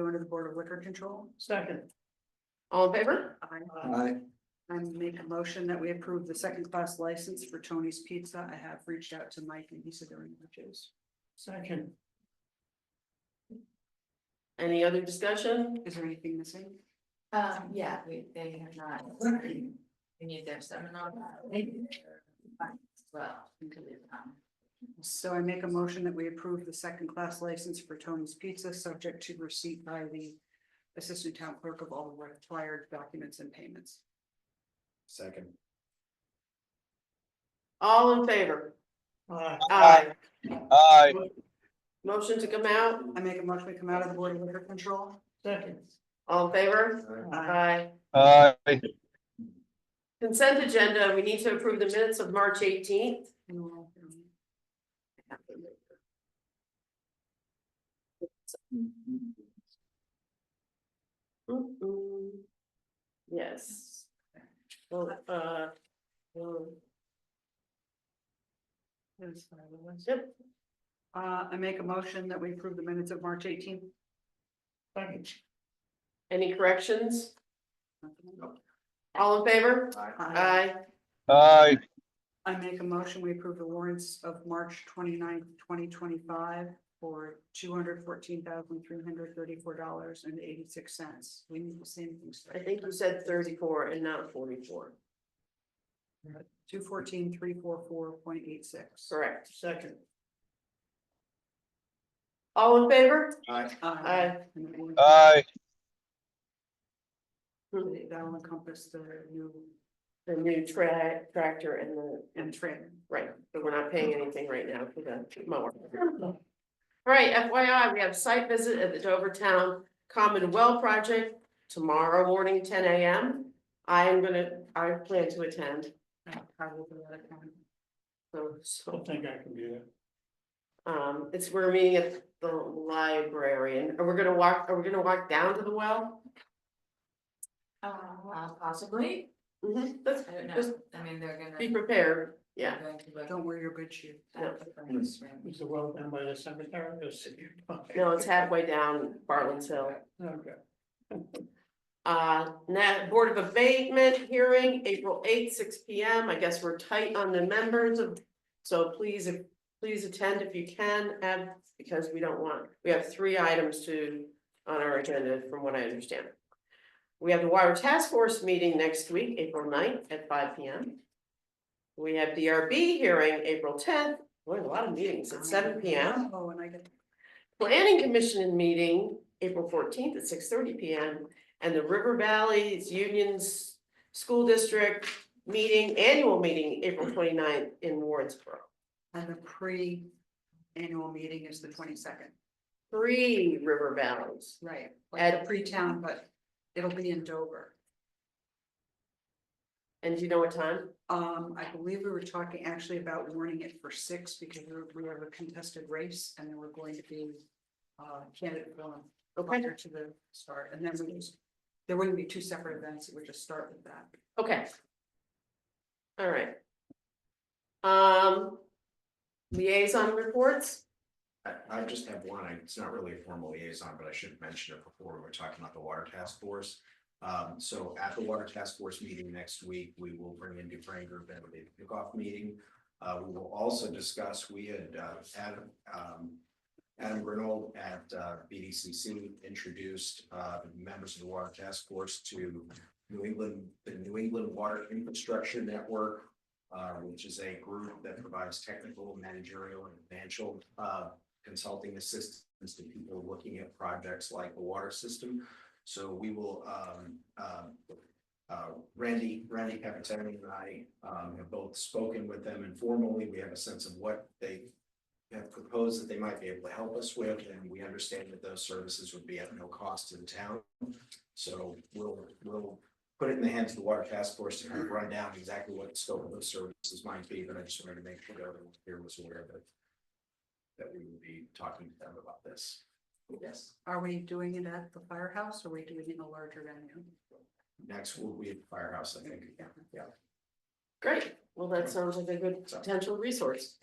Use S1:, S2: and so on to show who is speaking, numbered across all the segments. S1: Board of Liquor Control.
S2: Second.
S3: All in favor?
S1: I,
S4: Aye.
S1: I make a motion that we approve the second class license for Tony's Pizza. I have reached out to Mike and he said there are no issues.
S2: Second.
S3: Any other discussion?
S1: Is there anything missing?
S5: Um, yeah, we, they have not, we need their seminar. Well. um,
S1: So I make a motion that we approve the second class license for Tony's Pizza, subject to receipt by the Assistant Town Clerk of all the required documents and payments.
S4: Second.
S3: All in favor?
S2: Aye.
S3: Aye.
S6: aye,
S3: Motion to come out,
S1: I make a motion to come out of the Board of Liquor Control.
S2: Second.
S3: all in favor?
S1: Aye.
S3: Aye.
S6: aye,
S3: Consent agenda, we need to approve the minutes of March eighteenth. Yes. Well, uh. um, Yep,
S1: Uh, I make a motion that we approve the minutes of March eighteenth.
S2: Second.
S3: any corrections? All in favor? Aye.
S6: aye,
S1: Uh, I make a motion, we approve the warrants of March 29th, twenty twenty-five for two hundred fourteen thousand, three hundred thirty-four dollars and eighty-six cents. We need the same things.
S3: I think you said thirty-four and not forty-four,
S1: Two fourteen, three four four point eight six.
S3: correct.
S2: Second.
S3: All in favor?
S4: Aye.
S3: Aye.
S1: Uh, And it will-
S6: aye,
S1: That'll encompass the new
S3: The new tra- tractor and the,
S1: and trailer.
S3: right, but we're not paying anything right now for the mower. All right, FYI, we have site visit at the Dover Town Common Well Project tomorrow morning, ten AM. I am gonna, I plan to attend,
S1: uh, probably the other kind.
S3: so, so.
S2: Don't think I can do that.
S3: Um, it's, we're meeting at the library and we're gonna walk, are we gonna walk down to the well?
S5: Uh, possibly,
S3: Mhm, Let's
S5: I don't
S3: Just
S5: know, I mean, they're
S3: be
S5: gonna.
S3: prepared, yeah.
S5: they're going to look
S1: Don't wear your good shoe.
S5: at the plans, right?
S2: Is the well done by the cemetery or city?
S3: No, it's halfway down Bartlett's Hill.
S2: Okay.
S3: Uh, now, Board of Abatement hearing, April eighth, six P M. I guess we're tight on the members of. So please, if- please attend if you can, and because we don't want, we have three items to, on our agenda, from what I understand. We have the Water Task Force meeting next week, April 9th at five P M. We have D R B hearing, April tenth, boy, a lot of meetings at seven P M.
S1: Oh, and I get.
S3: Planning Commission meeting, April fourteenth at six thirty P M. And the River Valley's Unions School District meeting, annual meeting, April 29th in Wardsboro.
S1: And the pre-annual meeting is the twenty-second,
S3: Three River Valleys.
S1: right? Like
S3: At-
S1: the pre-town, but it'll be in Dover.
S3: And do you know what time?
S1: Um, I believe we were talking actually about warning it for six because we were- we have a contested race and there were going to be uh, candidate going
S3: Okay,
S1: prior to the start and then we just, there wouldn't be two separate events, it would just start with that.
S3: okay. All right. Um. Liaison reports,
S4: I, I just have one, I- it's not really a formal liaison, but I should have mentioned it before, we were talking about the water task force. Um, so at the water task force meeting next week, we will bring in Dufrain Group and a kickoff meeting. Uh, we will also discuss, we had, uh, Adam, um, Adam Grinold at, uh, BDCC introduced, uh, the members of the water task force to New England, the New England Water Infrastructure Network, uh, which is a group that provides technical, managerial, and financial, uh, consulting assistance to people looking at projects like the water system. So we will, um, um, uh, Randy, Randy Capitani and I, um, have both spoken with them informally. We have a sense of what they have proposed that they might be able to help us with, and we understand that those services would be at no cost to the town. So we'll, we'll put it in the hands of the Water Task Force to kind of run down exactly what the scope of those services might be, but I just wanted to make sure that everyone here was aware that that we will be talking to them about this. Yes.
S1: Are we doing it at the firehouse or are we doing it in a larger venue?
S4: Next will be at Firehouse, I think.
S1: Yeah.
S3: great, well, that sounds like a good potential resource.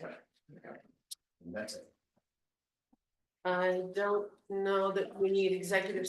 S4: And that's it.
S3: I don't know that we need executive